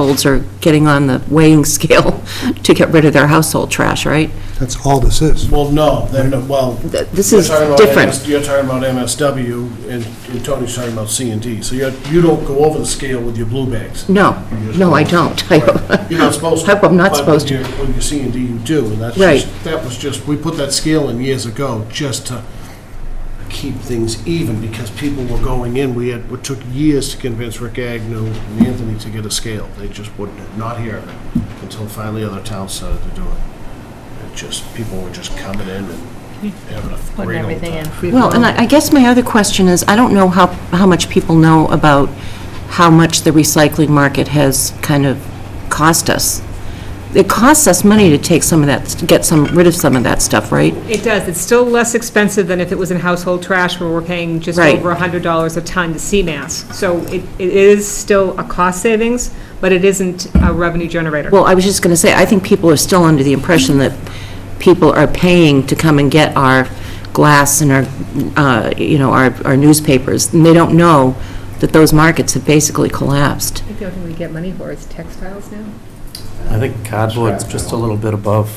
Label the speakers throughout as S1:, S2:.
S1: households are getting on the weighing scale to get rid of their household trash, right?
S2: That's all this is.
S3: Well, no, then, no, well.
S1: Th- This
S3: you're
S1: is
S3: talking about
S1: different.
S3: MS You're talking about MSW, and and Tony's talking about C and D, so you're, you don't go over the scale with your blue bags.
S1: No, no, I don't. I-
S3: You're not supposed to.
S1: I'm not
S3: But
S1: supposed to.
S3: When you're- when you're C and D, you do, and that's
S1: Right.
S3: just, that was just, we put that scale in years ago just to keep things even, because people were going in, we had, it took years to convince Rick Agnew and Anthony to get a scale. They just wouldn't, not here, until finally other towns started to do it. It just, people were just coming in and having a
S4: Putting
S3: great old
S4: everything in
S3: time.
S4: free
S1: Well, and I I guess my other question is, I don't know how, how much people know about how much the recycling market has kind of cost us. It costs us money to take some of that, to get some, rid of some of that stuff, right?
S5: It does. It's still less expensive than if it was in household trash, where we're paying just
S1: Right.
S5: over $100 a ton to CMAS. So it it is still a cost savings, but it isn't a revenue generator.
S1: Well, I was just going to say, I think people are still under the impression that people are paying to come and get our glass and our, uh, you know, our our newspapers, and they don't know that those markets have basically collapsed.
S4: think the only thing we get money for is textiles now.
S6: I think cardboard's just a little bit above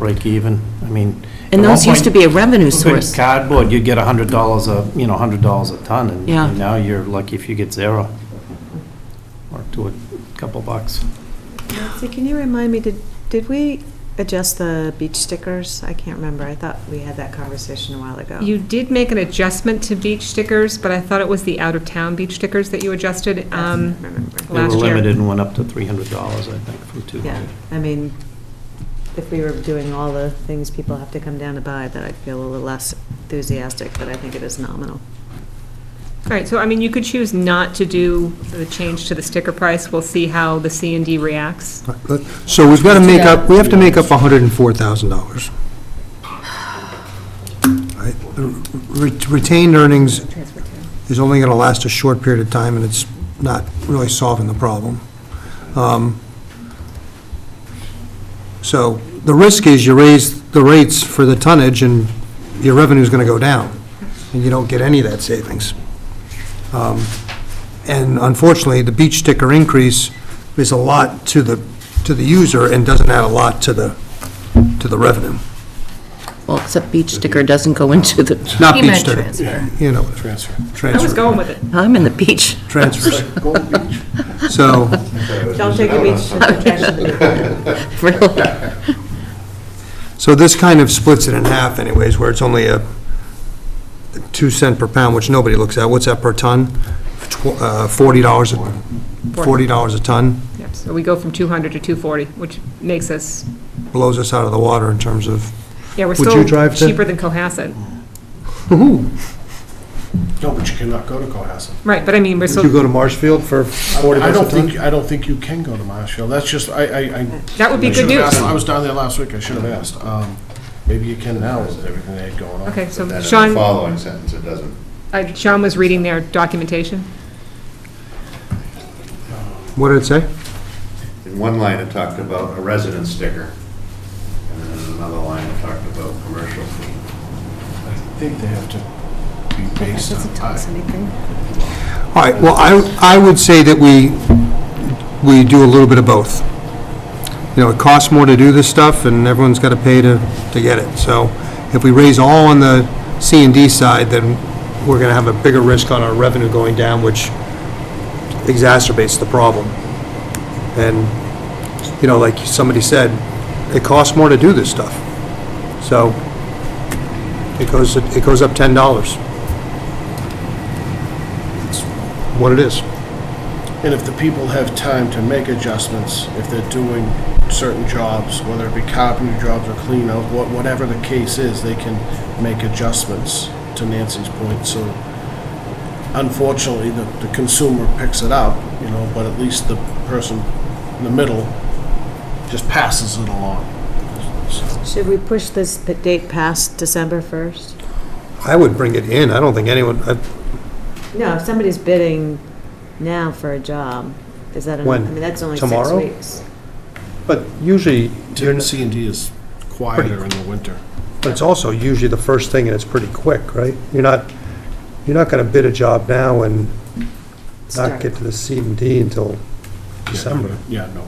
S6: break even. I mean.
S1: And
S6: at one
S1: those used to
S6: point,
S1: be a revenue
S6: you could
S1: source.
S6: Cardboard, you'd get a hundred dollars a, you know, hundred dollars a ton, and
S1: Yeah.
S6: and now you're lucky if you get zero. Or to a couple bucks.
S7: Nancy, can you remind me, did, did we adjust the beach stickers? I can't remember. I thought we had that conversation a while ago.
S5: You did make an adjustment to beach stickers, but I thought it was the out-of-town beach stickers that you adjusted
S7: I
S5: um,
S7: don't remember.
S5: last
S6: They were
S5: year.
S6: limited and went up to three hundred dollars, I think, from two
S7: Yeah,
S6: hundred.
S7: I mean, if we were doing all the things people have to come down to buy, then I'd feel a little less enthusiastic, but I think it is nominal.
S5: All right, so I mean, you could choose not to do the change to the sticker price. We'll see how the C and D reacts.
S2: So we've got to make up, we have to make up $104,000. Right? The re- Retained earnings is only going to last a short period of time, and it's not really solving the problem. Um, So the risk is you raise the rates for the tonnage, and your revenue's going to go down, and you don't get any of that savings. Um, And unfortunately, the beach sticker increase is a lot to the, to the user and doesn't add a lot to the, to the revenue.
S1: Well, except beach sticker doesn't go into the,
S2: Not
S4: He
S2: beach
S4: meant
S2: sticker,
S4: transfer.
S2: you know,
S3: Transfer.
S5: I was
S2: transfer,
S5: going with it.
S1: I'm in the beach.
S2: transfers.
S3: Golden Beach.
S2: So,
S7: Don't take a beach sticker
S1: Really?
S2: so this kind of splits it in half anyways, where it's only a two cent per pound, which nobody looks at. What's that per ton? Tw- uh, Forty dollars, a forty dollars a ton
S5: Yep, so we go from 200 to 240, which makes us,
S2: blows us out of the water in terms of,
S5: yeah, we're
S2: Would you
S5: still
S2: drive to-
S5: cheaper than Cohasset.
S3: No, but you cannot go to Cohasset.
S5: Right, but I mean, we're
S2: would you
S5: still,
S2: go to Marshfield for forty
S3: I
S2: bucks a
S3: don't
S2: ton?
S3: think, I don't think you can go to Marshfield, that's just, I, I, I.
S5: that would be
S3: I
S5: good
S3: should've
S5: news.
S3: asked. I was down there last week, I should have asked. Um, Maybe you can now with everything they had going on.
S5: Okay, so
S8: And then in the
S5: Sean,
S8: following sentence, it doesn't.
S5: uh, Sean was reading their documentation.
S2: What did it say?
S8: In one line, it talked about a resident sticker, and then in another line, it talked about commercial.
S3: I think they have to be based on time.
S2: All right, well, I, I would say that we, we do a little bit of both. You know, it costs more to do this stuff, and everyone's got to pay to, to get it. So if we raise all on the C and D side, then we're going to have a bigger risk on our revenue going down, which exacerbates the problem. And, you know, like somebody said, it costs more to do this stuff. So it goes, it goes up $10. It's what it is.
S3: And if the people have time to make adjustments, if they're doing certain jobs, whether it be carpentry jobs or clean out, what, whatever the case is, they can make adjustments, to Nancy's point, so unfortunately, the, the consumer picks it up, you know, but at least the person in the middle just passes it along. So-
S7: Should we push this p- date past December 1st?
S2: I would bring it in. I don't think anyone, I-
S7: No, if somebody's bidding now for a job, is that, enough? I
S2: When?
S7: mean, that's only six
S2: Tomorrow?
S7: weeks.
S2: but usually, you're n-
S3: C and D is quieter in the winter.
S2: but it's also usually the first thing, and it's pretty quick, right? You're not, you're not going to bid a job now and not
S7: Start.
S2: get to the C and D until December.
S3: Yeah, no.